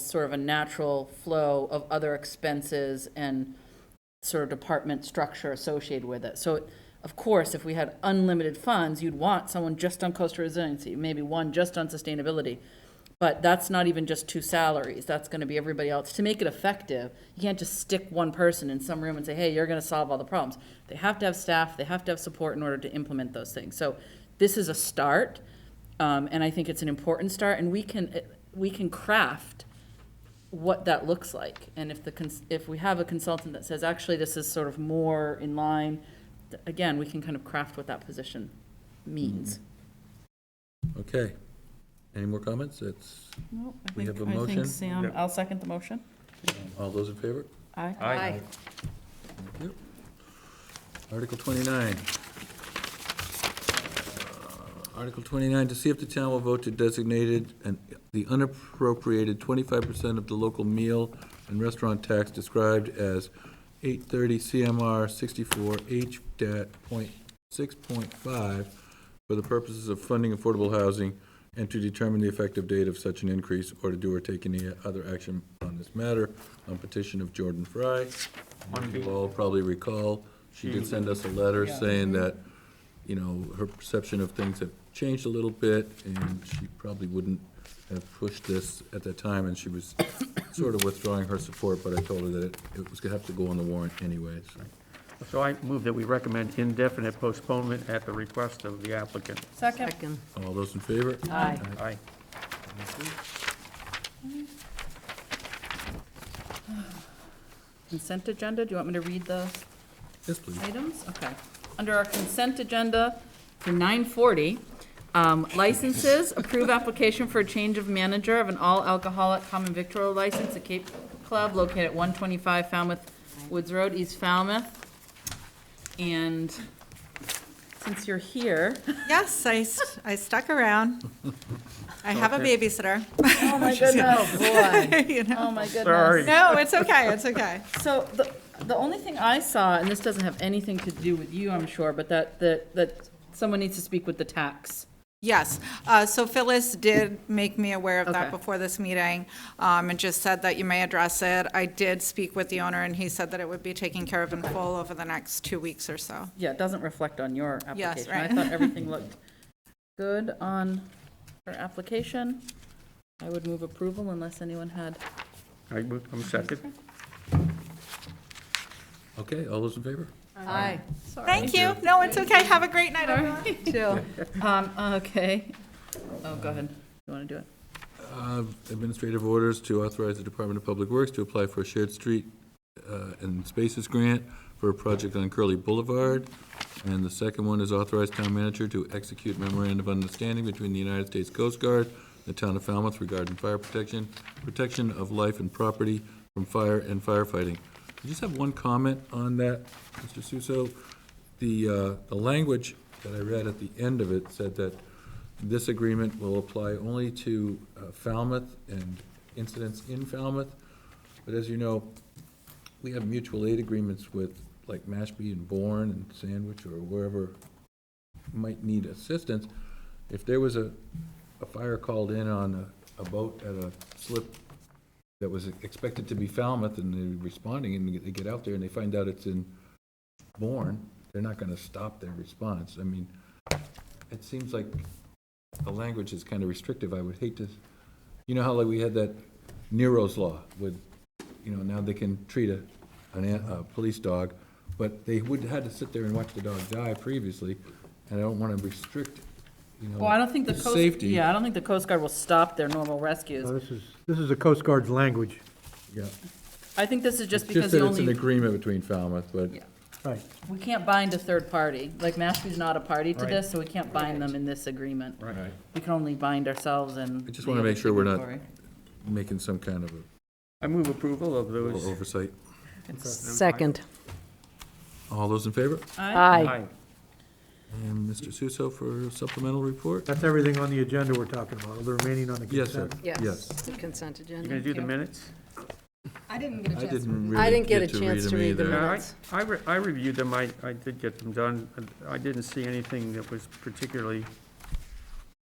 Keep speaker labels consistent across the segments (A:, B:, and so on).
A: sort of a natural flow of other expenses and sort of department structure associated with it. So of course, if we had unlimited funds, you'd want someone just on coastal resiliency, maybe one just on sustainability. But that's not even just two salaries, that's gonna be everybody else. To make it effective, you can't just stick one person in some room and say, hey, you're gonna solve all the problems. They have to have staff, they have to have support in order to implement those things. So this is a start, um, and I think it's an important start, and we can, we can craft what that looks like. And if the, cons- if we have a consultant that says, actually, this is sort of more in line, th- again, we can kind of craft what that position means.
B: Mm-hmm. Okay. Any more comments? It's, We have a
A: I think
B: motion?
A: Sam, I'll second the motion.
B: all those in favor?
A: Aye.
C: Aye.
B: Thank you. Article twenty-nine. Article twenty-nine, to see if the town will vote to designated and the unappropriated twenty-five percent of the local meal and restaurant tax described as eight thirty CMR sixty-four H dot point six point five for the purposes of funding affordable housing and to determine the effective date of such an increase or to do or take any other action on this matter on petition of Jordan Fry. You all probably recall, she did send us a letter saying that you know, her perception of things have changed a little bit, and she probably wouldn't have pushed this at that time, and she was sort of withdrawing her support, but I told her that it- it was gonna have to go on the warrant anyways.
C: So I move that we recommend indefinite postponement at the request of the applicant.
A: Second.
D: Second.
B: All those in favor?
A: Aye.
C: Aye.
A: Consent agenda, do you want me to read the
B: Yes, please.
A: items? Okay. Under our consent agenda for nine forty, um, licenses, approve application for a change of manager of an all-alcoholic common victual license at Cape Club located at one twenty-five Falmouth Woods Road, East Falmouth. And since you're here,
E: Yes, I, s- I stuck around. I have a babysitter.
A: oh my goodness, boy,
E: you know.
A: oh my goodness.
C: Sorry.
E: No, it's okay, it's okay.
A: So the, the only thing I saw, and this doesn't have anything to do with you, I'm sure, but that, that, that someone needs to speak with the tax.
E: Yes, uh, so Phyllis did make me aware of
A: Okay.
E: that before this meeting, um, and just said that you may address it. I did speak with the owner, and he said that it would be taken care of in full over the next two weeks or so.
A: Yeah, it doesn't reflect on your application.
E: Yes, right.
A: I thought everything looked good on her application. I would move approval unless anyone had,
C: I move, I'm second.
B: Okay, all those in favor?
A: aye.
E: Thank you. No, it's okay. Have a great night, everyone.
A: Um, okay. Oh, go ahead. You want to do it?
B: Uh, Administrative orders to authorize the Department of Public Works to apply for a shared street uh, and spaces grant for a project on Curly Boulevard. And the second one is authorize town manager to execute memorandum of understanding between the United States Coast Guard and the town of Falmouth regarding fire protection, protection of life and property from fire and firefighting. I just have one comment on that, Mr. Suso. The, uh, the language that I read at the end of it said that this agreement will apply only to uh, Falmouth and incidents in Falmouth. But as you know, we have mutual aid agreements with like Mashpee and Bourne and Sandwich or wherever might need assistance. If there was a, a fire called in on a, a boat at a slip that was expected to be Falmouth and they're responding and they get out there and they find out it's in Bourne, they're not gonna stop their response. I mean, it seems like the language is kind of restrictive. I would hate to, you know how like we had that Nero's Law with, you know, now they can treat a, an, an- a police dog, but they would, had to sit there and watch the dog die previously, and I don't want to restrict, you know.
A: Well, I don't think the Coast,
B: Safety.
A: yeah, I don't think the Coast Guard will stop their normal rescues.
F: Now, This is, this is the Coast Guard's language,
B: Yeah.
A: I think this is just
B: It's
A: because
B: that
A: the
B: It's an
A: only,
B: agreement between Falmouth, but
A: Yeah.
F: right.
A: we can't bind a third party. Like Mashpee's not a party to
C: Right.
A: this, so we can't bind them in this agreement.
C: Right.
A: We can only bind ourselves and.
B: I just
A: the
B: wanna make
A: other
B: sure we're not-
A: signatory.
B: making some kind of
C: I move approval of
B: a
C: those.
B: little oversight.
D: Second.
B: All those in favor?
D: Aye.
B: And Mr. Suso for supplemental report?
F: That's everything on the agenda we're talking about, the remaining on the
B: Yes, sir.
F: consent.
B: Yes.
D: The consent agenda.
C: You gonna do the minutes?
D: I didn't get
B: I didn't really.
D: I didn't get a
B: to
D: chance to read them
B: either.
C: Yeah, I-
D: Minutes.
C: I, re- I reviewed them, I, I did get them done. I didn't see anything that was particularly,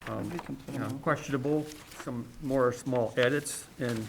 C: um,
A: We can put
C: you
A: them
C: know,
A: all.
C: questionable, some more small edits, and